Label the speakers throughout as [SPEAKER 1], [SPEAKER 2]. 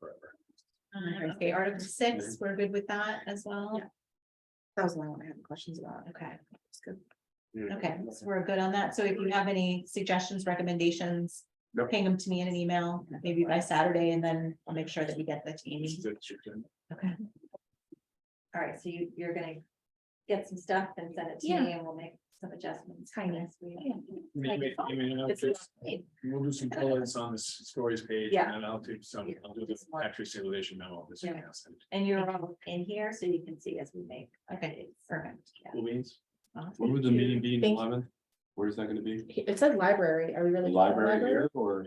[SPEAKER 1] forever.
[SPEAKER 2] Okay, Article six, we're good with that as well? That was the only one I had questions about. Okay. that's good. Okay, so we're good on that. So if you have any suggestions, recommendations,
[SPEAKER 1] Yep.
[SPEAKER 2] ping them to me in an email, maybe by Saturday, and then I'll make sure that we get that to Amy.
[SPEAKER 1] That's your turn.
[SPEAKER 2] Okay.
[SPEAKER 3] All right, so you, you're gonna get some stuff and send it to me and we'll make some adjustments. for
[SPEAKER 2] Tiny.
[SPEAKER 3] next week.
[SPEAKER 1] I mean, wait, I mean, I'll just- We'll do some colors on this stories page and
[SPEAKER 3] Yeah.
[SPEAKER 1] then I'll do some, I'll do the factory simulation memo. this
[SPEAKER 3] Yeah.
[SPEAKER 1] weekend.
[SPEAKER 3] And you're all in here, so you can see as we make.
[SPEAKER 2] Okay,
[SPEAKER 3] updates.
[SPEAKER 2] perfect.
[SPEAKER 3] Yeah.
[SPEAKER 1] Cool beans.
[SPEAKER 2] Awesome.
[SPEAKER 4] When would the meeting be,
[SPEAKER 5] Thank-
[SPEAKER 4] eleven? Where is that gonna be?
[SPEAKER 5] It said library, are we really?
[SPEAKER 4] Library here or?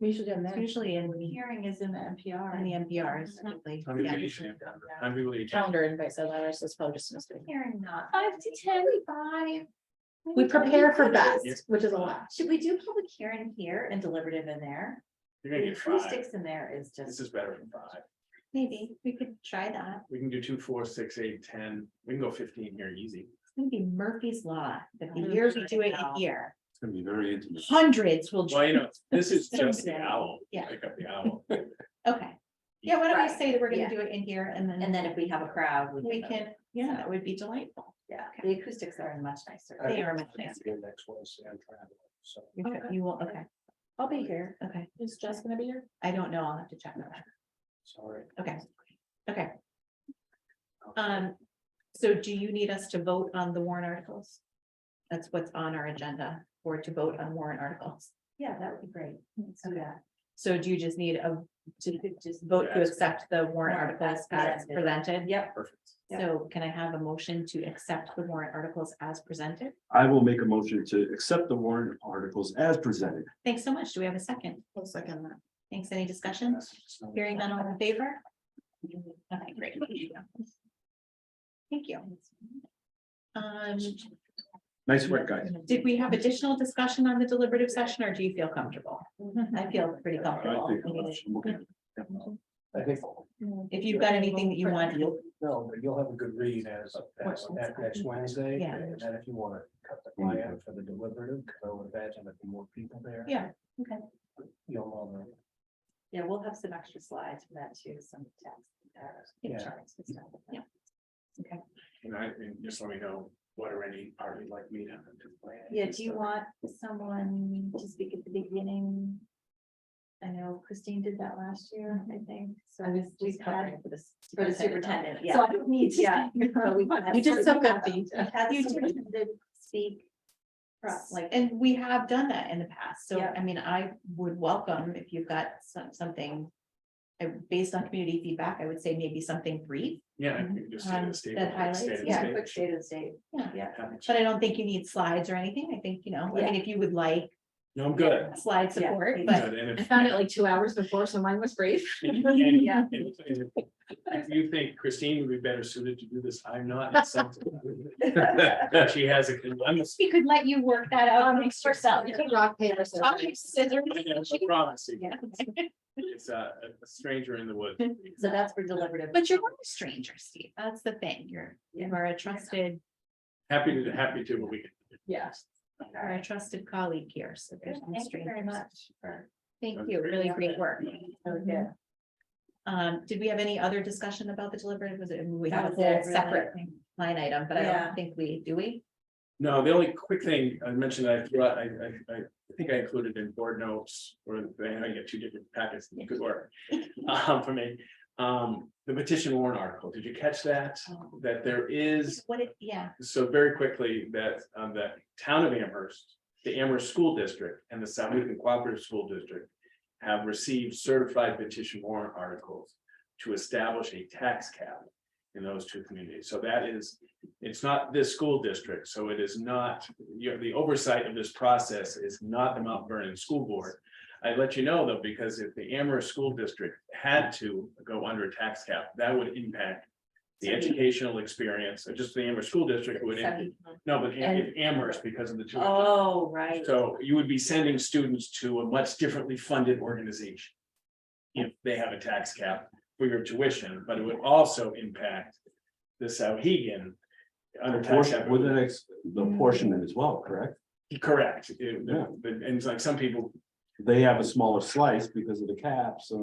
[SPEAKER 5] We should have
[SPEAKER 2] It's
[SPEAKER 5] that.
[SPEAKER 2] Usually in the,
[SPEAKER 3] Hearing is in the NPR.
[SPEAKER 2] in the MPRs. typically.
[SPEAKER 1] I'm really-
[SPEAKER 2] Yeah.
[SPEAKER 1] I'm really.
[SPEAKER 5] Calendar invite said library, so it's probably just a mistake.
[SPEAKER 3] Hearing not.
[SPEAKER 5] Five to ten.
[SPEAKER 3] Five.
[SPEAKER 5] We prepare for
[SPEAKER 1] Yeah.
[SPEAKER 5] best, which is a lot.
[SPEAKER 3] Should we do public hearing here and deliberative in there?
[SPEAKER 1] You're gonna
[SPEAKER 3] The
[SPEAKER 1] get five.
[SPEAKER 3] acoustics in there is
[SPEAKER 1] This
[SPEAKER 3] just,
[SPEAKER 1] is better than five.
[SPEAKER 2] Maybe we could try that.
[SPEAKER 1] We can do two, four, six, eight, ten. We can go fifteen here easy.
[SPEAKER 2] It's gonna be Murphy's Law, that
[SPEAKER 3] Mm-hmm.
[SPEAKER 2] the years we do it in here,
[SPEAKER 4] It's gonna be very intimate.
[SPEAKER 2] hundreds will.
[SPEAKER 1] Well, you know, this is just the
[SPEAKER 2] Something.
[SPEAKER 1] owl.
[SPEAKER 2] Yeah.
[SPEAKER 1] Pick up the owl.
[SPEAKER 2] Okay. Yeah, why don't we
[SPEAKER 3] Right.
[SPEAKER 2] say that we're gonna
[SPEAKER 3] Yeah.
[SPEAKER 2] do it in here and then.
[SPEAKER 3] and then if we have a crowd,
[SPEAKER 2] We can, yeah, that would be delightful.
[SPEAKER 3] Yeah, the acoustics are much
[SPEAKER 1] Uh,
[SPEAKER 3] nicer.
[SPEAKER 2] They are much nicer.
[SPEAKER 1] Next Wednesday, I'm traveling, so.
[SPEAKER 2] You could-
[SPEAKER 5] Okay.
[SPEAKER 2] You will, okay,
[SPEAKER 5] I'll be here.
[SPEAKER 2] okay.
[SPEAKER 5] Is Jess gonna be here?
[SPEAKER 2] I don't know. I'll have to check on that.
[SPEAKER 1] Sorry.
[SPEAKER 2] Okay, okay. Um, so do you need us to vote on the warrant articles? That's what's on our agenda, or to vote on warrant articles.
[SPEAKER 3] Yeah, that would be great. So
[SPEAKER 2] Okay.
[SPEAKER 3] yeah.
[SPEAKER 2] So do you just need a, to
[SPEAKER 3] Just
[SPEAKER 2] vote to
[SPEAKER 1] Yes.
[SPEAKER 2] accept the warrant articles as
[SPEAKER 3] Yeah.
[SPEAKER 2] presented?
[SPEAKER 3] Yep.
[SPEAKER 1] Perfect.
[SPEAKER 3] Yeah.
[SPEAKER 2] So can I have a motion to accept the warrant articles as presented?
[SPEAKER 4] I will make a motion to accept the warrant articles as presented.
[SPEAKER 2] Thanks so much. Do we have a second?
[SPEAKER 5] One second.
[SPEAKER 2] Thanks. Any discussion? Hearing none, all in favor? Okay, great. Thank you. Um,
[SPEAKER 4] Nice work, guys.
[SPEAKER 5] Mhm.
[SPEAKER 2] did we have additional discussion on the deliberative session or do you feel comfortable? I feel pretty
[SPEAKER 4] I
[SPEAKER 2] comfortable.
[SPEAKER 4] think I'm looking at-
[SPEAKER 6] I think,
[SPEAKER 5] Mm.
[SPEAKER 2] If you've got anything that you want,
[SPEAKER 6] you'll, no, but you'll have a good read as, as that next Wednesday,
[SPEAKER 2] Yeah.
[SPEAKER 6] and then if you wanna cut the
[SPEAKER 4] Mm-hmm.
[SPEAKER 6] plan for the deliberative, because I would imagine there'd be more people there.
[SPEAKER 2] Yeah, okay.
[SPEAKER 6] You'll all know.
[SPEAKER 3] Yeah, we'll have some extra slides for that too, some text. uh,
[SPEAKER 6] Yeah.
[SPEAKER 3] charts and stuff like that.
[SPEAKER 2] Yeah. okay.
[SPEAKER 1] And I, and just let me know what or any party like me to have to plan.
[SPEAKER 3] Yeah, do you want someone to speak at the beginning? I know Christine did that last year, I think, so
[SPEAKER 2] I was
[SPEAKER 3] we've
[SPEAKER 2] just
[SPEAKER 3] had
[SPEAKER 2] covering for this.
[SPEAKER 3] for the superintendent, yeah.
[SPEAKER 2] So
[SPEAKER 3] I don't need, yeah.
[SPEAKER 2] You
[SPEAKER 3] You
[SPEAKER 2] did so good, Bea.
[SPEAKER 3] Had
[SPEAKER 2] You
[SPEAKER 3] the
[SPEAKER 2] did.
[SPEAKER 3] superintendent speak.
[SPEAKER 2] Right,
[SPEAKER 3] Like,
[SPEAKER 2] Like, and we have done that in the past, so
[SPEAKER 3] Yeah.
[SPEAKER 2] I mean, I would welcome if you've got some, something. I, based on community feedback, I would say maybe something brief,
[SPEAKER 1] Yeah. I think just stay in
[SPEAKER 2] Um,
[SPEAKER 1] the state.
[SPEAKER 2] that highlights,
[SPEAKER 1] stay in the
[SPEAKER 3] yeah,
[SPEAKER 1] state.
[SPEAKER 3] quick state of the state.
[SPEAKER 2] Yeah.
[SPEAKER 3] Yeah.
[SPEAKER 2] but I don't think you need slides or anything, I think, you know, I mean, if you would like
[SPEAKER 1] No, I'm good.
[SPEAKER 2] slide
[SPEAKER 3] Yeah.
[SPEAKER 2] support,
[SPEAKER 1] Good,
[SPEAKER 2] but.
[SPEAKER 1] and
[SPEAKER 5] I
[SPEAKER 1] if-
[SPEAKER 5] found it like two hours before, so mine was brief.
[SPEAKER 1] and- and-
[SPEAKER 3] Yeah.
[SPEAKER 1] and- and If you think Christine would be better suited to do this, I'm not. it's something. She has a, I'm a.
[SPEAKER 2] We could let you work that out amongst yourselves.
[SPEAKER 5] You can Um, rock, paper, scissors.
[SPEAKER 1] I promise you,
[SPEAKER 2] Yeah.
[SPEAKER 1] It's a, a stranger in the woods.
[SPEAKER 3] So that's for deliberative.
[SPEAKER 2] But you're not a stranger, Steve, that's the thing, you're, you
[SPEAKER 3] Yeah.
[SPEAKER 2] are a trusted,
[SPEAKER 1] Happy to, happy to, but we can.
[SPEAKER 5] Yeah.
[SPEAKER 3] All
[SPEAKER 2] you are a
[SPEAKER 3] right.
[SPEAKER 2] trusted colleague here, so there's no
[SPEAKER 3] Thank you very
[SPEAKER 2] strangers.
[SPEAKER 3] much for.
[SPEAKER 2] Thank you, really great work.
[SPEAKER 3] Okay.
[SPEAKER 2] Um, did we have any other discussion about the deliberative? Was it, we
[SPEAKER 3] That
[SPEAKER 2] have a
[SPEAKER 3] was it,
[SPEAKER 2] whole
[SPEAKER 3] really, I
[SPEAKER 2] separate
[SPEAKER 3] think.
[SPEAKER 2] line item, but I
[SPEAKER 3] Yeah.
[SPEAKER 2] don't think we, do we?
[SPEAKER 1] No, the only quick thing I mentioned, I, threw out, I, I, I think I included in board notes, or I get two different packets, good work. Um, for me, um, the petition warrant article, did you catch that?
[SPEAKER 3] Um,
[SPEAKER 1] That there is,
[SPEAKER 2] What it, yeah,
[SPEAKER 1] so very quickly, that, um, the town of Amherst, the Amherst School District and the Southwick Cooperative School District have received certified petition warrant articles to establish a tax cap in those two communities. So that is, it's not this school district, so it is not, you know, the oversight of this process is not the Mount Vernon School Board. I let you know though, because if the Amherst School District had to go under a tax cap, that would impact the educational experience, or just the Amherst School District would,
[SPEAKER 3] Seven.
[SPEAKER 1] no, but
[SPEAKER 3] And-
[SPEAKER 1] Amherst because of the two.
[SPEAKER 3] Oh, right.
[SPEAKER 1] So you would be sending students to a much differently funded organization. If they have a tax cap for your tuition, but it would also impact the Sauhegan. Under tax cap.
[SPEAKER 4] With the next, the
[SPEAKER 2] Mm-hmm.
[SPEAKER 4] portion as well, correct?
[SPEAKER 1] Correct, It- the- the- and it's like some people
[SPEAKER 4] They have a smaller slice because of the cap, so